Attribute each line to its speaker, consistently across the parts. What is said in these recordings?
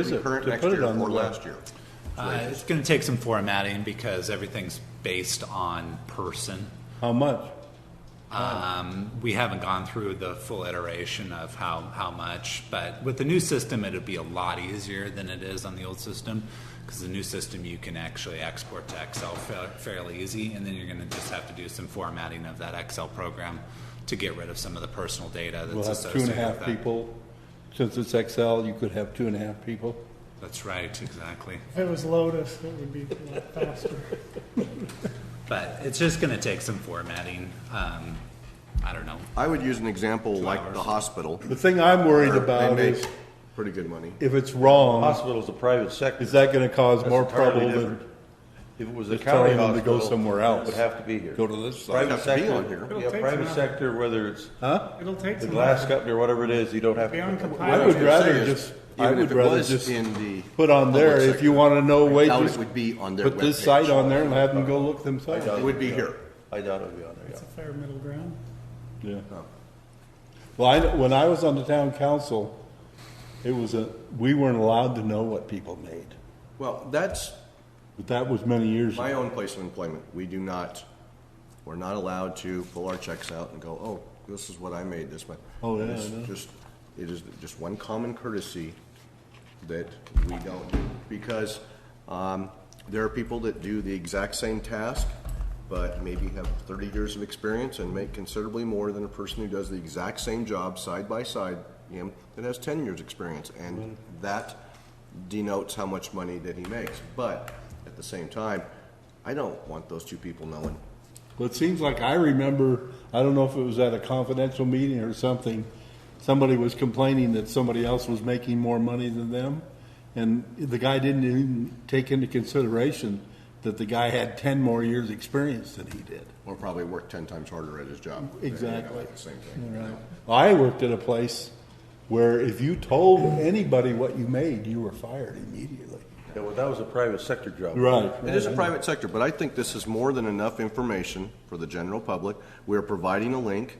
Speaker 1: Is it,
Speaker 2: Current
Speaker 1: to
Speaker 2: next
Speaker 1: put it
Speaker 2: year
Speaker 1: on the
Speaker 2: or
Speaker 1: web?
Speaker 2: last year.
Speaker 3: Uh, it's going to take some formatting because everything's based on person.
Speaker 1: How much?
Speaker 3: Um, we haven't gone through the full iteration of how, how much, but with the new system, it'll be a lot easier than it is on the old system because the new system you can actually export to Excel fa- fairly easy, and then you're going to just have to do some formatting of that Excel program to get rid of some of the personal data that's
Speaker 1: We'll have two
Speaker 3: associated
Speaker 1: and a half
Speaker 3: with that.
Speaker 1: people. Since it's Excel, you could have two and a half people.
Speaker 3: That's right, exactly.
Speaker 4: If it was Lotus, it would be a lot faster.
Speaker 3: But it's just going to take some formatting. Um, I don't know.
Speaker 2: I would use an example like the hospital.
Speaker 1: The thing I'm worried
Speaker 2: where
Speaker 1: about
Speaker 2: They
Speaker 1: is
Speaker 2: make pretty good money.
Speaker 1: if it's wrong,
Speaker 5: Hospital's a private sector.
Speaker 1: is that gonna cause
Speaker 5: That's
Speaker 1: more
Speaker 5: entirely
Speaker 1: trouble than
Speaker 5: different. If it was a
Speaker 1: just
Speaker 5: county
Speaker 1: telling them to go
Speaker 5: hospital.
Speaker 1: somewhere
Speaker 5: It
Speaker 1: else?
Speaker 5: would have to be here.
Speaker 1: go to this side?
Speaker 5: Private
Speaker 2: Have to be
Speaker 5: sector,
Speaker 2: on here.
Speaker 4: It'll
Speaker 5: yeah,
Speaker 4: take
Speaker 5: private
Speaker 4: some-
Speaker 5: sector, whether it's
Speaker 1: Huh?
Speaker 4: It'll take
Speaker 5: the
Speaker 4: some.
Speaker 5: glass company or whatever it is, you don't have
Speaker 4: Be
Speaker 5: to.
Speaker 1: I
Speaker 4: uncompliant.
Speaker 1: would
Speaker 2: gonna say
Speaker 1: rather
Speaker 2: is,
Speaker 1: just, I
Speaker 2: even if
Speaker 1: would
Speaker 2: it
Speaker 1: rather
Speaker 2: was
Speaker 1: just
Speaker 2: in the
Speaker 1: put on there,
Speaker 2: public
Speaker 1: if you
Speaker 2: sector,
Speaker 1: wanna know
Speaker 2: doubt
Speaker 1: wages.
Speaker 2: it would be on their
Speaker 1: Put this
Speaker 2: webpage.
Speaker 1: site on there and have them go look themselves.
Speaker 2: It would be here.
Speaker 5: I doubt it'll be on there,
Speaker 4: It's a fair middle ground.
Speaker 1: Yeah. Well, I, when I was on the town council, it was a, we weren't allowed to know what people made.
Speaker 2: Well, that's
Speaker 1: But that was many years
Speaker 2: my
Speaker 1: ago.
Speaker 2: own place of employment. We do not, we're not allowed to pull our checks out and go, oh, this is what I made this month.
Speaker 1: Oh, yeah, I
Speaker 2: It's
Speaker 1: know.
Speaker 2: Just, it is just one common courtesy that we don't do. Because um, there are people that do the exact same task, but maybe have 30 years of experience and make considerably more than a person who does the exact same job side by side, you know, that has 10 years' experience. And that denotes how much money that he makes. But at the same time, I don't want those two people knowing.
Speaker 1: But it seems like I remember, I don't know if it was at a confidential meeting or something, somebody was complaining that somebody else was making more money than them. And the guy didn't even take into consideration that the guy had ten more years' experience than he did.
Speaker 2: Or probably work ten times harder at his job.
Speaker 1: Exactly.
Speaker 2: Like the Same thing.
Speaker 1: Right. I worked at a place where if you told anybody what you made, you were fired immediately.
Speaker 5: yeah. Well, that was a private sector job.
Speaker 1: Right.
Speaker 2: It is a private sector, but I think this is more than enough information for the general public. We're providing a link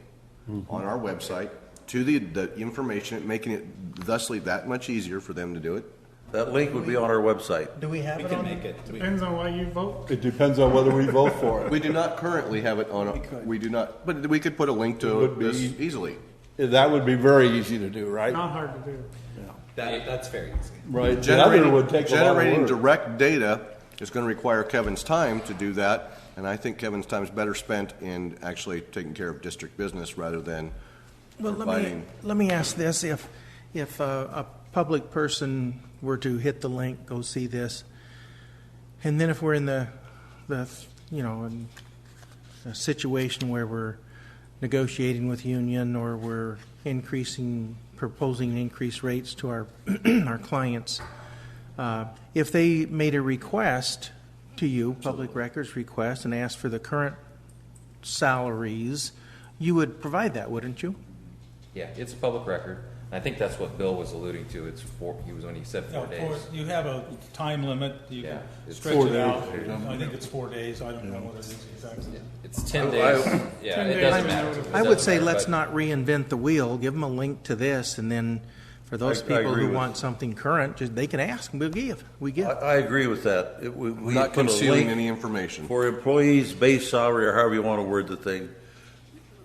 Speaker 2: on our website to the, the information, making it thusly that much easier for them to do it.
Speaker 5: That link would be on our website.
Speaker 4: Do we have
Speaker 3: We can make it. We-
Speaker 4: Depends on why you vote.
Speaker 1: It depends on whether we vote for
Speaker 2: We do not currently have it on, a- we do not, but we could put a link to
Speaker 1: would be-
Speaker 2: this easily.
Speaker 1: it. That would be very easy to do, right?
Speaker 4: Not hard to do.
Speaker 3: That, that's very easy.
Speaker 1: Right. The other
Speaker 2: Generating,
Speaker 1: would take a lot
Speaker 2: generating
Speaker 1: of work.
Speaker 2: direct data is gonna require Kevin's time to do that, and I think Kevin's time is better spent in actually taking care of district business rather than
Speaker 6: Well, let me,
Speaker 2: providing.
Speaker 6: let me ask this, if, if uh, a public person were to hit the link, go see this, and then if we're in the, the, you know, in a situation where we're negotiating with union or we're increasing, proposing increased rates to our, our clients, uh, if they made a request to you, public records request, and asked for the current salaries, you would provide that, wouldn't you?
Speaker 7: Yeah, it's a public record. I think that's what Bill was alluding to. It's four, he was when he said
Speaker 8: No,
Speaker 7: four
Speaker 8: four,
Speaker 7: days.
Speaker 8: you have a time limit, you can
Speaker 7: Yeah, it's
Speaker 8: stretch
Speaker 1: four
Speaker 8: it
Speaker 1: days.
Speaker 8: out. I think it's four days, I don't know what it is exactly.
Speaker 7: It's ten days. Yeah, it doesn't matter. It
Speaker 6: I would
Speaker 7: doesn't
Speaker 6: say
Speaker 7: matter,
Speaker 6: let's
Speaker 7: but-
Speaker 6: not reinvent the wheel. Give them a link to this, and then for those
Speaker 5: I- I
Speaker 6: people
Speaker 5: agree
Speaker 6: who
Speaker 5: with-
Speaker 6: want something current, just, they can ask, and we'll give. We
Speaker 5: I,
Speaker 6: give.
Speaker 5: I agree with that. It- we- we
Speaker 2: Not
Speaker 5: put a
Speaker 2: concealing
Speaker 5: link
Speaker 2: any information.
Speaker 5: For employees' base salary, or however you want to word the thing,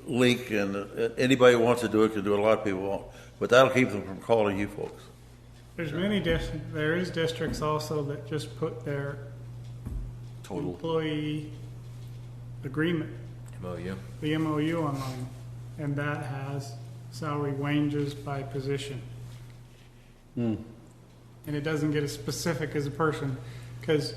Speaker 5: link, and uh, anybody who wants to do it can do it, a lot of people won't. But that'll keep them from calling you folks.
Speaker 4: There's many dis, there is districts also that just put their
Speaker 2: Total.
Speaker 4: employee agreement,
Speaker 7: MOU.
Speaker 4: the MOU online, and that has salary ranges by position.
Speaker 6: Hmm.
Speaker 4: And it doesn't get as specific as a person, because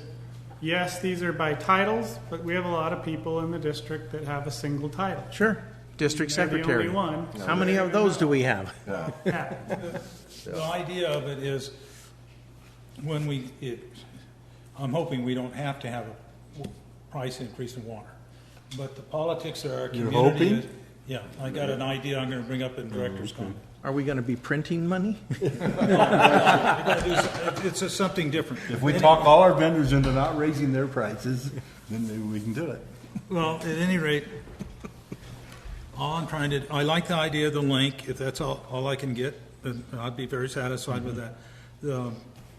Speaker 4: yes, these are by titles, but we have a lot of people in the district that have a single title.
Speaker 6: Sure, district
Speaker 4: They're the only
Speaker 6: secretary.
Speaker 4: one.
Speaker 6: How many of those do we have?
Speaker 4: Yeah.
Speaker 5: Yeah.
Speaker 8: The idea of it is, when we, it, I'm hoping we don't have to have a w- price increase in water. But the politics of our
Speaker 1: You're
Speaker 8: community
Speaker 1: hoping? Mm,
Speaker 8: is, yeah, I got an idea I'm gonna bring up in director's comment.
Speaker 6: Are we going to be printing money?
Speaker 8: I gotta do s- It's just something different.
Speaker 1: If we talk all our vendors into not raising their prices, then maybe we can do it.
Speaker 8: Well, at any rate, all I'm trying to, I like the idea of the link, if that's all, all I can get, then I'd be very satisfied with that. The